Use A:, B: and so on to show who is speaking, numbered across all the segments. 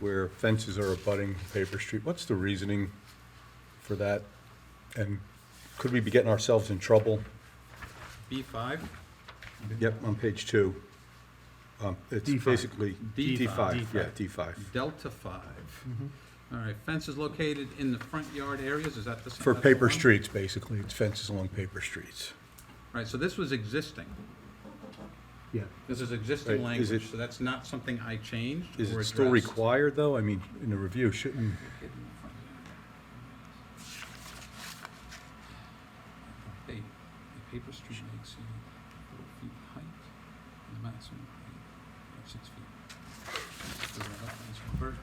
A: where fences are abutting paper street. What's the reasoning for that? And could we be getting ourselves in trouble?
B: B five?
A: Yep, on page two. Um, It's
C: D5.
A: basically,
B: D5.
A: D5, yeah, D5.
B: Delta five. All right, fences located in the front yard areas, is that the same?
A: For
B: that's the
A: paper
B: one?
A: streets, basically, it's fences along paper streets.
B: Right, so this was existing.
C: Yeah,
B: This is
A: Right,
B: existing
A: is
B: language,
A: it-
B: so that's not something I changed
A: Is
B: or
A: it still
B: addressed.
A: required, though? I mean, in a review, shouldn't,
B: A, a paper street may exceed four feet height, and the maximum height of six feet. Just do that up as well. Bird,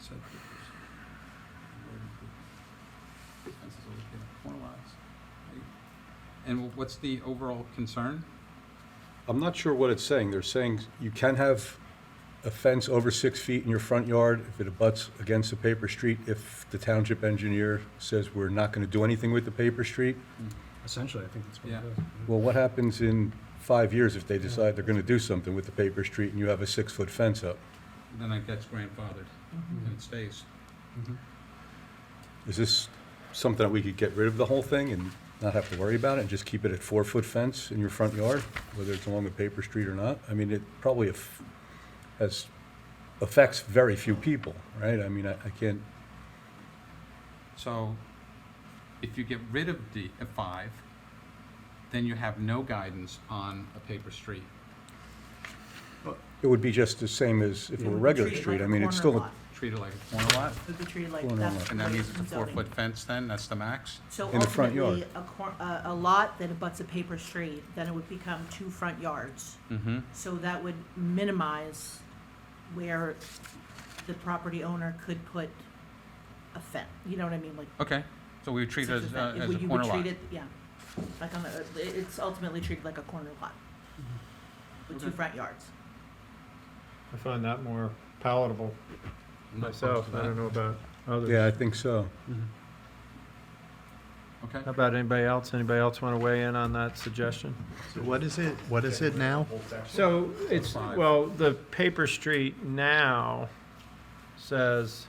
B: side papers, and road improvement. Fences located on corner lots, height. And wh- what's the overall concern?
A: I'm not sure what it's saying. They're saying you can have a fence over six feet in your front yard if it abuts against a paper street, if the township engineer says we're not gonna do anything with the paper street.
C: essentially, I think that's what
B: Yeah.
C: it is.
A: Well, what happens in five years if they decide they're gonna do something with the paper street and you have a six-foot fence up?
B: Then that gets grandfathered, and it stays.
C: Mhm.
A: Is this something that we could get rid of the whole thing and not have to worry about it and just keep it at four-foot fence in your front yard, whether it's along a paper street or not? I mean, it probably aff- has, affects very few people, right? I mean, I I can't,
B: So if you get rid of D, uh, five, then you have no guidance on a paper street.
A: it would be just the same as if it were a regular street. I mean, it's still,
B: Treat it like a corner lot,
D: It would be treated like,
A: Corner lot.
D: that's.
B: and that
D: what
B: means it's a
D: zoning.
B: four-foot fence then, that's the max?
D: So
A: in the front
D: ultimately,
A: yard.
D: a cor, a, a lot that abuts a paper street, then it would become two front yards.
B: Mm-hmm.
D: So that would minimize where the property owner could put a fence, you know what I mean, like.
B: Okay, so we would treat it
D: such
B: as,
D: a
B: uh,
D: fen-
B: as
D: would-
B: a
D: you would
B: corner lot.
D: treat it- Yeah, like on the, it- it's ultimately treated like a corner lot. With two
B: Okay.
D: front yards.
E: I find that more palatable
B: I'm not
E: myself.
B: opposed to
E: I don't know about others.
A: yeah, I think so.
C: Mm-hmm.
B: that. Okay,
E: How about anybody else? Anybody else want to weigh in on that suggestion?
F: So What is it, what is it now?
E: So it's,
B: Five.
E: well, the paper street now says,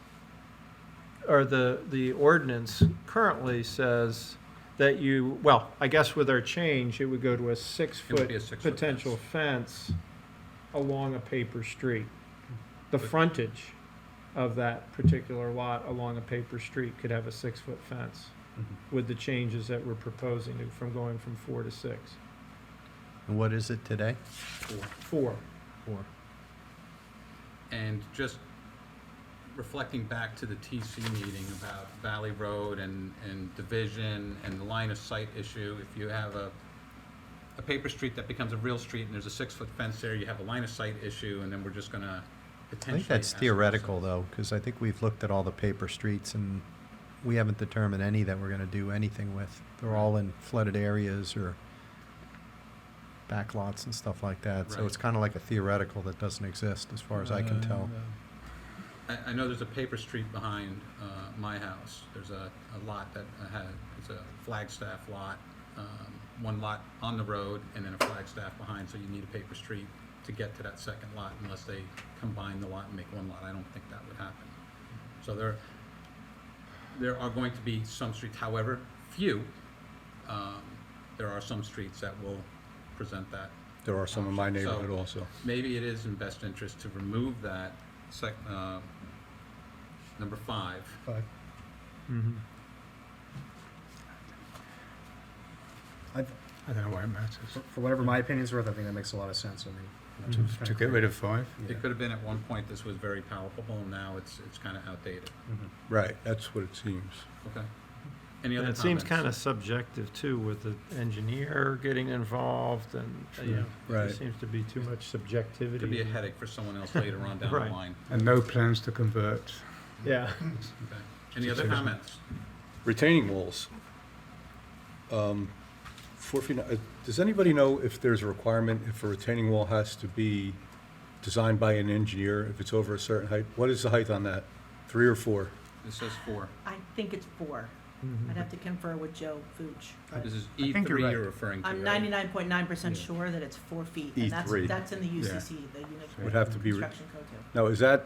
E: or the, the ordinance currently says that you, well, I guess with our change, it would go to a
B: it would be a
E: six-foot
B: six-foot fence.
E: potential fence along a paper street. The frontage of that particular lot along a paper street could have a six-foot fence
B: Mm-hmm.
E: with the changes that we're proposing to- from going from four to six.
F: And what is it today?
B: Four.
E: Four.
F: Or-
B: And just reflecting back to the TC meeting about Valley Road and, and division and the line of sight issue, if you have a, a paper street that becomes a real street and there's a six-foot fence there, you have a line of sight issue, and then we're just gonna
F: I
B: potentially.
F: think that's
B: ask
F: theoretical though, because I think we've looked at all the paper streets and we haven't determined any that we're gonna do anything with. They're all in flooded areas or back lots and stuff like that. So
B: Right.
F: it's kind of like a theoretical that doesn't exist as far as I can tell.
G: Uh,
B: I, I know there's a paper street behind, uh, my house. There's a, a lot that I had, it's a Flagstaff lot. Um, one lot on the road and then a Flagstaff behind, so you need a paper street to get to that second lot unless they combine the lot and make one lot. I don't think that would happen. So there, there are going to be some streets, however, few, um, there are some streets that will present that
A: There are some in my neighborhood
B: So-
A: also.
B: maybe it is in best interest to remove that sec, uh, number five.
G: Mm-hmm.
E: Mhm.
G: I don't know why it matters. For whatever my opinion's worth, I think that makes a lot of sense, I mean.
F: Mm-hmm.
E: To-
G: get rid of five?
B: It could have been at one point this was very palpable, and now it's, it's kind of outdated.
A: Right, that's what it seems.
B: Okay. Any
E: And
B: other
E: it seems
B: comments?
E: kind of subjective too, with the engineer getting involved and, uh, you know, there
A: Right.
E: seems to be too much subjectivity.
B: Mm-hmm. Could be a headache for someone else later on down the
E: Right.
B: line.
G: And no plans to convert.
E: Yeah.
B: Okay. Any other comments?
A: retaining walls. Um, Four feet, uh, does anybody know if there's a requirement if a retaining wall has to be designed by an engineer, if it's over a certain height? What is the height on that? Three or four?
B: This says four.
D: I think it's four.
E: Mm-hmm.
D: I'd have to confer with Joe Fuchs.
B: This is
G: I
B: E
G: think you're
B: three
G: right.
B: you're referring to,
D: I'm
B: right?
D: ninety-nine point nine percent sure that it's four feet, and that's,
A: E3.
D: that's in the
B: Yeah.
D: UCC, the unit.
A: E Would have to be re-
D: Construction code too.
A: Now, is that